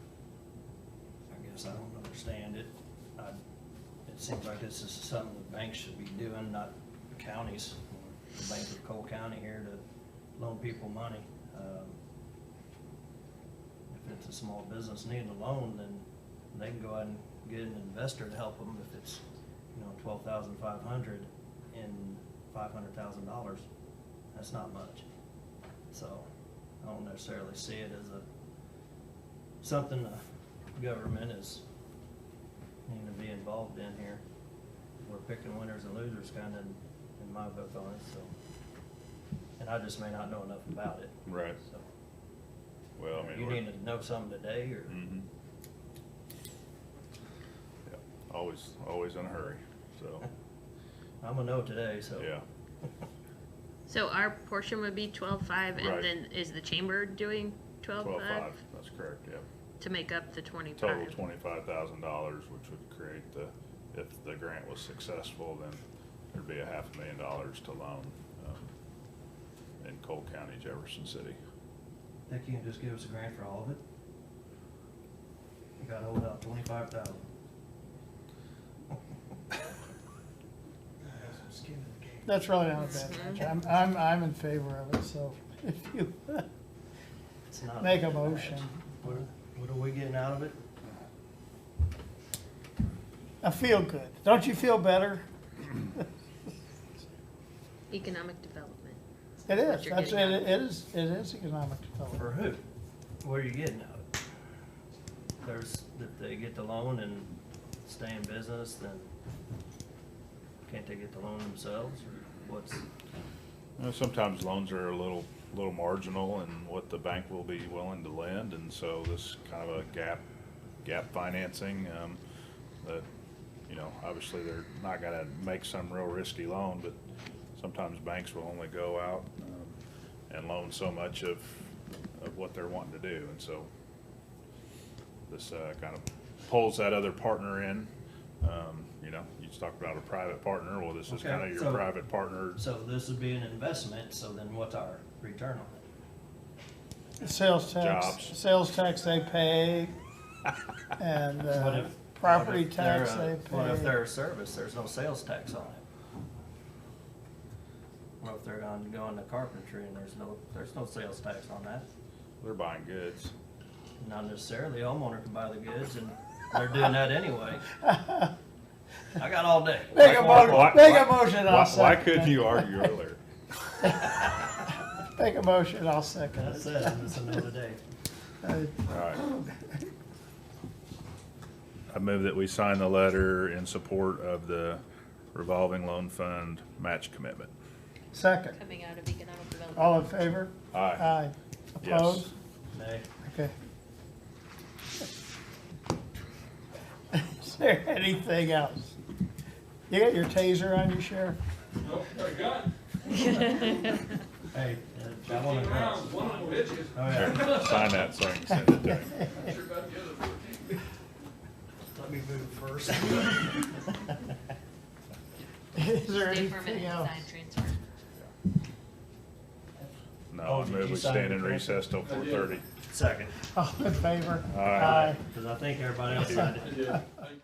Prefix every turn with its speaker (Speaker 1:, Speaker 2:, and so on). Speaker 1: this, I don't understand it. I, it seems like this is something the banks should be doing, not the counties. The Bank of Cole County here to loan people money. Um, If it's a small business needing a loan, then they can go out and get an investor to help them if it's, you know, twelve thousand five hundred and five hundred thousand dollars. That's not much. So I don't necessarily see it as a, something the government is needing to be involved in here. We're picking winners and losers kind of in my book on it, so. And I just may not know enough about it.
Speaker 2: Right.
Speaker 1: So
Speaker 2: Well, I mean.
Speaker 1: You
Speaker 2: we're-
Speaker 1: need to know something today or,
Speaker 2: Mhm. Yeah, Always, always in a hurry, so,
Speaker 1: I'm gonna know today, so.
Speaker 2: yeah.
Speaker 3: So our portion would be twelve five,
Speaker 2: Right.
Speaker 3: and then is the chamber doing twelve five
Speaker 2: That's correct, yeah.
Speaker 3: to make up the twenty
Speaker 2: Total
Speaker 3: five?
Speaker 2: twenty-five thousand dollars, which would create the, if the grant was successful, then there'd be a half a million dollars to loan um, in Cole County, Jefferson City.
Speaker 1: They can't just give us a grant for all of it. You gotta hold out twenty-five thousand.
Speaker 4: Have some skin in the game.
Speaker 5: That's really not a bad idea. I'm, I'm, I'm in favor of it, so if you
Speaker 1: It's not.
Speaker 5: make a motion,
Speaker 1: What, what are we getting out of it?
Speaker 5: I feel good. Don't you feel better?
Speaker 3: Economic development.
Speaker 5: It is,
Speaker 3: What you're
Speaker 5: that's, it
Speaker 3: getting at.
Speaker 5: it is, it is economic development.
Speaker 1: For who? What are you getting out of it? There's, if they get the loan and stay in business, then can't they get the loan themselves or what's?
Speaker 2: You know, Sometimes loans are a little, little marginal in what the bank will be willing to lend, and so this kind of a gap, gap financing, um, that, you know, obviously they're not gonna make some real risky loan, but sometimes banks will only go out, um, and loan so much of, of what they're wanting to do, and so this, uh, kind of pulls that other partner in, um, you know, you just talked about a private partner, well, this is
Speaker 1: Okay,
Speaker 2: kind of your
Speaker 1: so-
Speaker 2: private partner
Speaker 1: So this would be an investment, so then what's our return on it?
Speaker 5: Sales tax,
Speaker 2: Jobs.
Speaker 5: sales tax they pay, and,
Speaker 1: What
Speaker 5: uh,
Speaker 1: if-
Speaker 5: property
Speaker 1: What if they're
Speaker 5: tax
Speaker 1: a-
Speaker 5: they
Speaker 1: What if
Speaker 5: pay.
Speaker 1: they're a service, there's no sales tax on it? What if they're going, going to carpentry and there's no, there's no sales tax on that?
Speaker 2: They're buying goods.
Speaker 1: Not necessarily, homeowner can buy the goods and they're doing that anyway. I got all day.
Speaker 5: Make a
Speaker 2: Why-
Speaker 5: motion,
Speaker 2: why-
Speaker 5: make a
Speaker 2: why-
Speaker 5: motion,
Speaker 2: why-
Speaker 5: I'll
Speaker 2: Why
Speaker 5: second
Speaker 2: couldn't
Speaker 5: it.
Speaker 2: you argue earlier?
Speaker 5: Make a motion, I'll second
Speaker 1: That's
Speaker 5: it.
Speaker 1: it, it's another day.
Speaker 5: Uh,
Speaker 2: All right. I move that we sign the letter in support of the revolving loan fund match commitment.
Speaker 5: Second,
Speaker 3: Coming out of economic
Speaker 5: Oh,
Speaker 3: development.
Speaker 5: all in favor?
Speaker 2: Aye.
Speaker 5: Aye.
Speaker 2: Yes.
Speaker 5: Opposed?
Speaker 1: Nay.
Speaker 5: Okay. Is there anything else? You got your taser on you, Sheriff?
Speaker 4: Nope, got a gun.
Speaker 1: Hey, uh, I want to
Speaker 4: Fifteen
Speaker 1: go.
Speaker 4: rounds, one of them bitches.
Speaker 1: Oh,
Speaker 2: Here,
Speaker 1: yeah.
Speaker 2: Sign that so I can send it to him.
Speaker 4: Not sure about the other fourteen.
Speaker 1: Let me move first.
Speaker 5: Is there
Speaker 3: Stay for a minute
Speaker 5: anything
Speaker 3: and
Speaker 5: else?
Speaker 3: sign transfer.
Speaker 2: No,
Speaker 1: Oh,
Speaker 2: I
Speaker 1: did
Speaker 2: move
Speaker 1: you
Speaker 2: we
Speaker 1: sign
Speaker 2: stand
Speaker 1: the
Speaker 2: in
Speaker 1: paper?
Speaker 2: recess till four thirty.
Speaker 1: Second,
Speaker 5: All in favor?
Speaker 2: Aye.
Speaker 1: because I think everybody else signed it.
Speaker 4: I did. I-